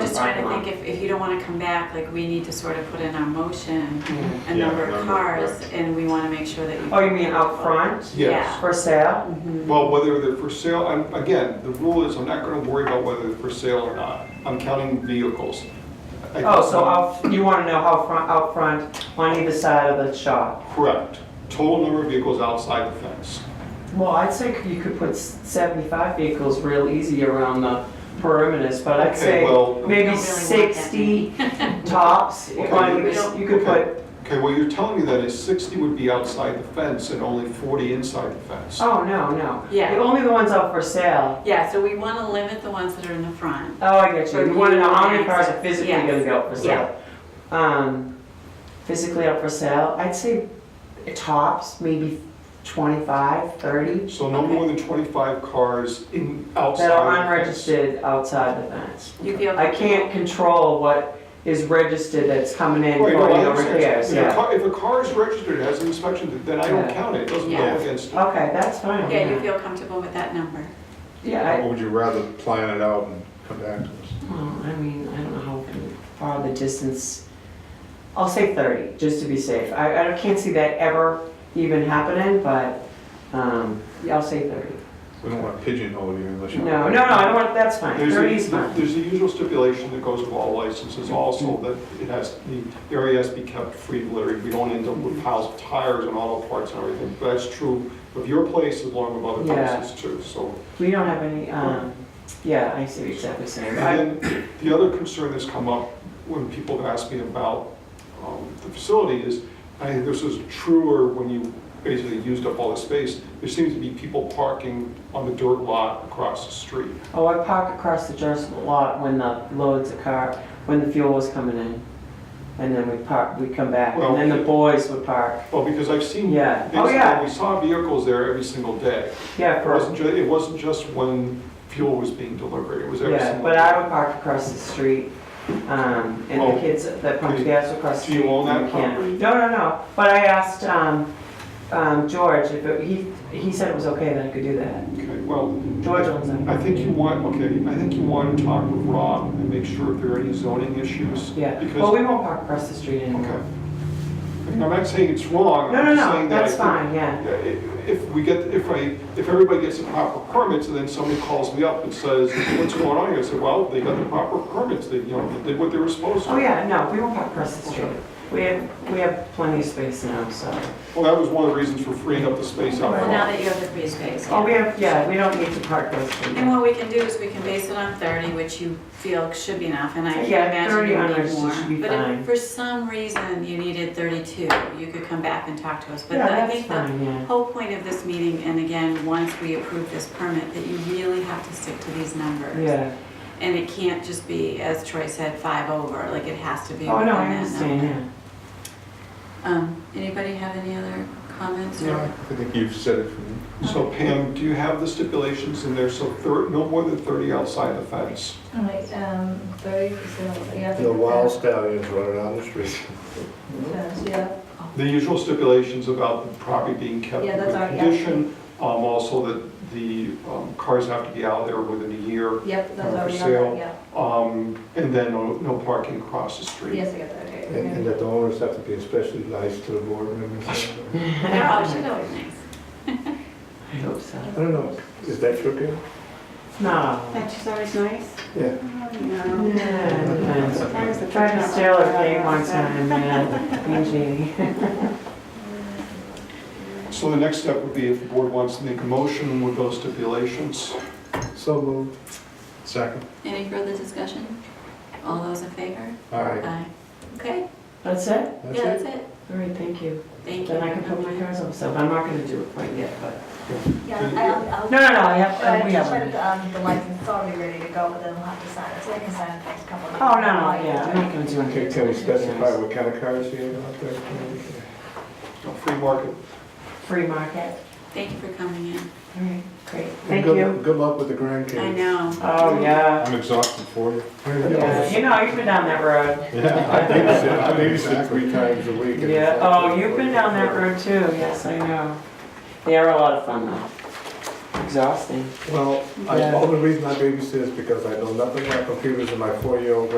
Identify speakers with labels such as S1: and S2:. S1: trying to
S2: parking lot.
S1: think if, if you don't wanna come back, like, we need to sort of put in our motion
S2: Yeah.
S1: a
S3: Yeah,
S1: Mm-hmm. number of
S3: number,
S1: cars,
S3: correct.
S1: and we wanna make sure that you.
S2: Oh, you mean out front
S3: Yes.
S2: for sale?
S3: Well, whether they're for sale, I'm, again, the rule is I'm not gonna worry about whether they're for sale or not. I'm counting vehicles. I-
S2: Oh, so out, you want to know how front, out front, on either side of the shop?
S3: Correct. Total number of vehicles outside the fence.
S2: Well, I'd say you could put s- 75 vehicles real easy around the perimeters, but I'd
S3: Okay,
S2: say
S3: well-
S1: We don't really
S2: maybe
S1: want that
S2: 60 tops.
S3: Okay.
S2: On either s- You could
S3: Okay.
S2: put,
S3: Okay, what you're telling me then is 60 would be outside the fence and only 40 inside the fence.
S2: oh, no, no.
S1: Yeah.
S2: The- Only the ones out for sale.
S1: Yeah, so we wanna limit the ones that are in the front.
S2: Oh, I get you.
S1: Or
S2: You want to know how many
S1: you
S2: cars
S1: want
S2: are physically
S1: access.
S2: going to be out for
S1: Yeah.
S2: sale? Um, physically up for sale, I'd say tops, maybe 25, 30,
S3: So no more than 25 cars in, outside.
S2: that are
S3: the fence.
S2: unregistered outside the fence.
S1: You feel.
S2: I can't control what is registered that's coming in for
S3: Right, no, I
S2: your
S3: understand.
S2: repairs,
S3: If a
S2: yeah.
S3: car- If a car is registered, has an inspection, then I don't
S2: Yeah.
S3: count it. It doesn't
S1: Yeah.
S3: go against it.
S2: Okay, that's fine.
S1: Yeah, you feel comfortable with that number.
S2: Yeah, I,
S4: Or would you rather plan it out and come back to us?
S2: well, I mean, I don't know how far the distance, I'll say 30, just to be safe. I, I can't see that ever even happening, but, um, yeah, I'll say 30.
S4: We don't want to pigeonhole you unless you.
S2: No, no, no, I don't want, that's fine,
S3: There's
S2: thirty's
S3: a,
S2: fine.
S3: there's a usual stipulation that goes with all licenses also, that it has, the area has to be kept free of litter. We don't end up with piles of tires and auto parts and everything. But That's true of your place as long as other
S2: Yeah.
S3: places too, so.
S2: We don't have any, um, yeah, I see exactly same. I-
S3: And then the other concern that's come up when people have asked me about um, the facility is, I think this is truer when you basically used up all the space. There seems to be people parking on the dirt lot across the street.
S2: Oh, I parked across the Jersey lot when the loads of car, when the fuel was coming in. And then we park, we come back, and then the boys would park.
S3: Well, because I've seen,
S2: Yeah. Oh,
S3: basically,
S2: yeah.
S3: we saw vehicles there every single day.
S2: Yeah,
S3: It
S2: for,
S3: wasn't just, it wasn't just when fuel was being delivered, it was every
S2: yeah,
S3: single.
S2: but I would park across the street, um, and
S3: Oh.
S2: the kids that pumped
S3: Do-
S2: gas across
S3: do
S2: the street.
S3: you own that
S2: we can't.
S3: property?
S2: No, no, no, but I asked, um, um, George if it, he, he said it was okay that I could do that.
S3: Okay, well,
S2: George owns it.
S3: I think you want, okay, I think you want to talk with Rob and make sure if there are any zoning issues.
S2: Yeah, well,
S3: Because,
S2: we won't park across the street
S3: okay.
S2: anymore.
S3: I mean, I'm not saying it's wrong,
S2: No,
S3: I'm
S2: no,
S3: just saying
S2: no,
S3: that. I
S2: that's
S3: think-
S2: fine, yeah.
S3: Yeah, i- If we get, if I, if everybody gets the proper permits and then somebody calls me up and says, what's going on here? I say, well, they got the proper permits, they, you know, they did what they were supposed to.
S2: Oh, yeah, no, we won't park across the street.
S3: Okay.
S2: We have, we have plenty of space now, so.
S3: Well, that was one of the reasons for freeing up the space out
S1: Well,
S3: front.
S1: now that you have the free space.
S2: Oh, we have, yeah, we don't need to park those things.
S1: And what we can do is we can base it on 30, which you feel should be enough, and I can
S2: Yeah,
S1: imagine
S2: 30
S1: you
S2: on ours should
S1: need
S2: be
S1: more. But
S2: fine.
S1: if for some reason you needed 32, you could come back and talk to us. But
S2: Yeah,
S1: I
S2: that's
S1: think the
S2: fine, yeah.
S1: whole point of this meeting, and again, once we approve this permit, that you really have to stick to these numbers.
S2: Yeah.
S1: And it can't just be, as Troy said, five over, like it has to be
S2: Oh,
S1: within
S2: no, I
S1: that
S2: understand,
S1: number.
S2: yeah.
S1: Um, Anybody have any other comments? or-
S4: Yeah, I think you've said it for me.
S3: So Pam, do you have the stipulations in there, so thir no more than 30 outside the fence?
S5: All right, um, thirty percent, yeah.
S6: The wild stallions running on the street.
S5: Yeah,
S3: The usual stipulations about the property being kept
S5: Yeah,
S3: in
S5: that's
S3: good
S5: our- yeah.
S3: condition, um, also that the um, cars have to be out of there within a year,
S5: yep,
S3: For
S5: that's already
S3: sale.
S5: on, yeah,
S3: um, and then no no parking across the street.
S5: yes, I got that, okay.
S6: And and that the owners have to be especially nice to the board members.
S1: They're always they're Oh, always nice.
S2: I hope so.
S6: I don't know, is that your game?
S2: No.
S7: She's always nice.
S6: Yeah.
S7: No.
S2: Yeah, I Tried to steal her cake one time, yeah, mean Jeannie.
S3: So the next step would be if the board wants to make a motion with those stipulations.
S6: So moved.
S4: Second?
S1: Any further discussion? All those in favor?
S4: All right.
S1: Aye. Okay,
S2: That's it?
S1: yeah, that's
S6: That's it?
S1: it.
S2: All right, thank you.
S1: Thank you.
S2: Then I can put my cars up, so I'm not gonna do it quite yet, but.
S5: Yeah, I'll, I'll.
S2: No, no, no, I have, uh,
S5: But
S2: we
S5: just
S2: have.
S5: put
S2: one.
S5: um, the license, it's already ready to go, but then we'll have to sign it, so I can sign it next couple of.
S2: Oh, no, no, yeah, I'm not gonna do
S6: Can
S2: anything.
S6: can we specify what kind of cars you have out there?
S3: You know, Free market.
S2: Free market.
S1: Thank you for coming in.
S2: All right, great.
S6: And
S2: Thank
S6: good-
S2: you.
S6: Good luck with the grandkids.
S1: I know.
S2: Oh, yeah.
S4: I'm exhausted for you.
S2: Yeah, You know, you've been down that road.
S4: Yeah.
S6: I babysit, I babysit three times a week. and
S2: Yeah,
S6: it's like-
S2: oh, you've been down that road too, yes, I know. They are a lot of fun though. Exhausting.
S6: Well, I-
S2: Yeah.
S6: the only reason I babysit is because I know nothing about computers and my four-year-old